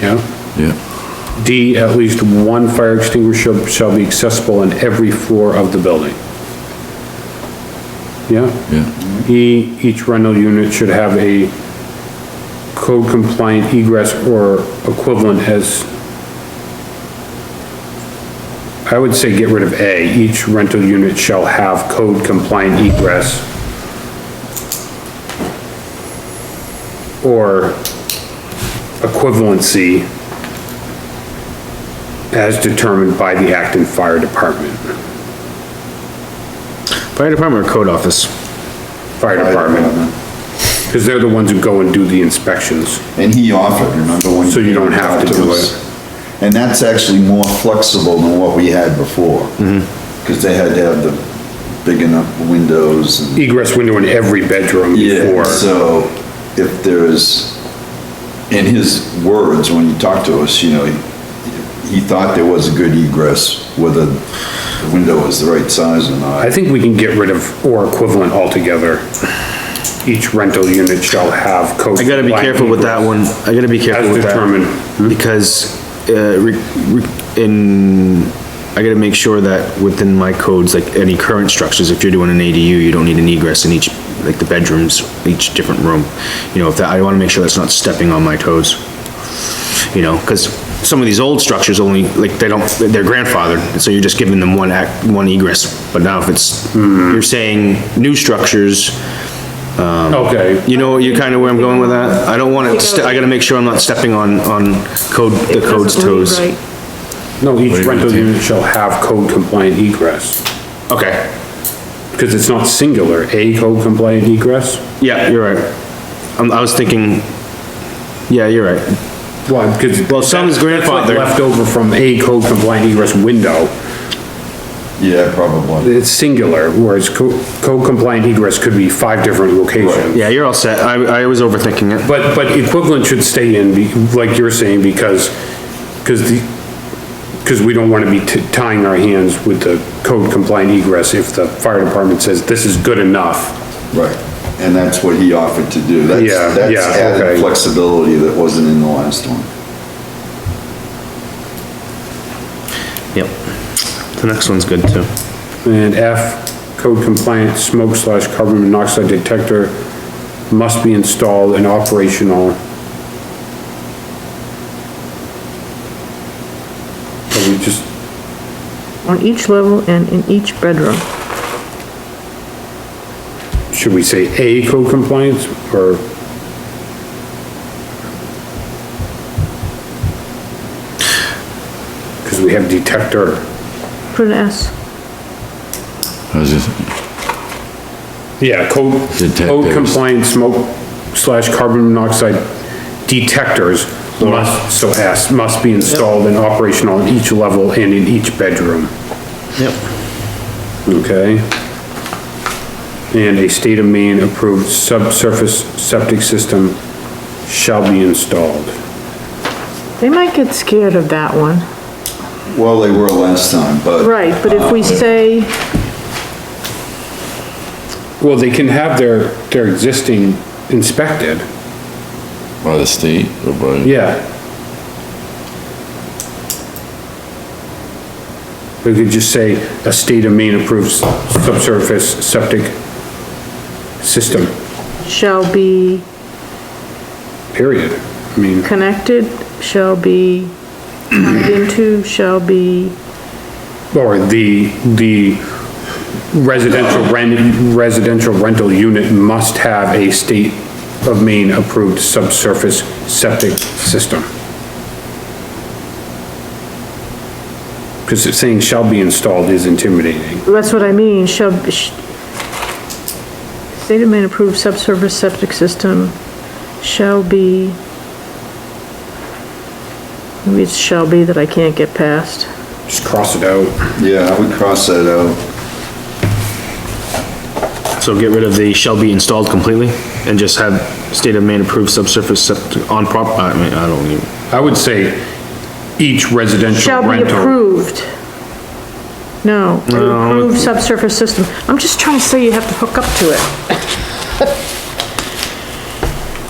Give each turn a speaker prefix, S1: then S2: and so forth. S1: yeah.
S2: Yeah,
S1: D, at least one fire extinguisher shall be accessible on every floor of the building. Yeah?
S2: yeah,
S1: E, each rental unit should have a code compliant egress or equivalent as, I would say get rid of A, each rental unit shall have code compliant egress. Or equivalency as determined by the Acton Fire Department,
S3: Fire department or code office?
S1: fire department, because they're the ones who go and do the inspections.
S4: And he offered, remember when?
S1: So you don't
S4: he
S1: have to
S4: talked
S1: do
S4: us.
S1: it.
S4: And that's actually more flexible than what we had before.
S1: Mm-hmm.
S4: Cause they had to have the big enough windows and.
S1: egress window in every bedroom before.
S4: So if there's, in his words, when he talked to us, you know, he- he thought there was a good egress, whether the window was the right size or
S1: I
S4: not.
S1: think we can get rid of or equivalent altogether. Each rental unit shall have code.
S3: I gotta be careful with that one. I gotta be careful
S1: As
S3: with
S1: determined. Hmm?
S3: that. Because, uh, re- re- in, I gotta make sure that within my codes, like any current structures, if you're doing an ADU, you don't need an egress in each, like the bedrooms, each different room. You know, if that, I wanna make sure that's not stepping on my toes. You know, cause some of these old structures only, like, they don't, they're grandfathered, and so you're just giving them one act, one egress. But now if it's,
S1: Hmm.
S3: you're saying new structures,
S1: Okay,
S3: you know, you kind of where I'm going with that? I don't want to, ste- I gotta make sure I'm not stepping on, on code, the code's toes.
S5: Right.
S1: no,
S2: What are
S1: each
S2: you gonna
S1: rental
S2: do?
S1: unit shall have code compliant egress,
S3: Okay,
S1: because it's not singular, a code compliant egress.
S3: yeah, you're right. Um, I was thinking, yeah, you're right.
S1: Well, because.
S3: Well, some is grandfathered.
S1: Left over from a code compliant egress window,
S4: Yeah, probably.
S1: it's singular, whereas co- code compliant egress could be five different locations.
S3: Yeah, you're all set. I, I was overthinking it.
S1: But, but equivalent should stay in, be- like you're saying, because, because the, because we don't want to be t- tying our hands with the code compliant egress if the fire department says this is good enough.
S4: Right, and that's what he offered to do. That's,
S1: Yeah,
S4: that's
S1: yeah,
S4: added
S1: okay.
S4: flexibility that wasn't in the last one.
S3: Yep. The next one's good too.
S1: And F, code compliant smoke slash carbon monoxide detector must be installed and operational. Are we just,
S5: On each level and in each bedroom.
S1: should we say A code compliance or? Because we have detector.
S5: Put an S.
S2: I was just,
S1: Yeah, code, code
S2: Detectors.
S1: compliant smoke slash carbon monoxide detectors must, so S, must be installed and operational in each level and in each bedroom.
S3: Yep.
S1: Okay. And a state of Maine approved subsurface septic system shall be installed.
S5: They might get scared of that one.
S4: Well, they were last time, but.
S5: Right, but if we say,
S1: Well, they can have their, their existing inspected,
S2: by the state or by?
S1: yeah. We could just say a state of Maine approved subsurface septic system,
S5: shall be
S1: period. I mean,
S5: connected, shall be tied into, shall be,
S1: or the, the residential rent, residential rental unit must have a state of Maine approved subsurface septic system. Because saying shall be installed is intimidating.
S5: that's what I mean, shall, sh- state of Maine approved subsurface septic system shall be, maybe it's shall be that I can't get past.
S1: Just cross it out.
S4: Yeah, I would cross that out.
S3: So get rid of the shall be installed completely and just have state of Maine approved subsurface septic on prop, I mean, I don't even.
S1: I would say each residential
S5: Shall be
S1: rental.
S5: approved. No, approved subsurface system. I'm just trying to say you have to hook up to it.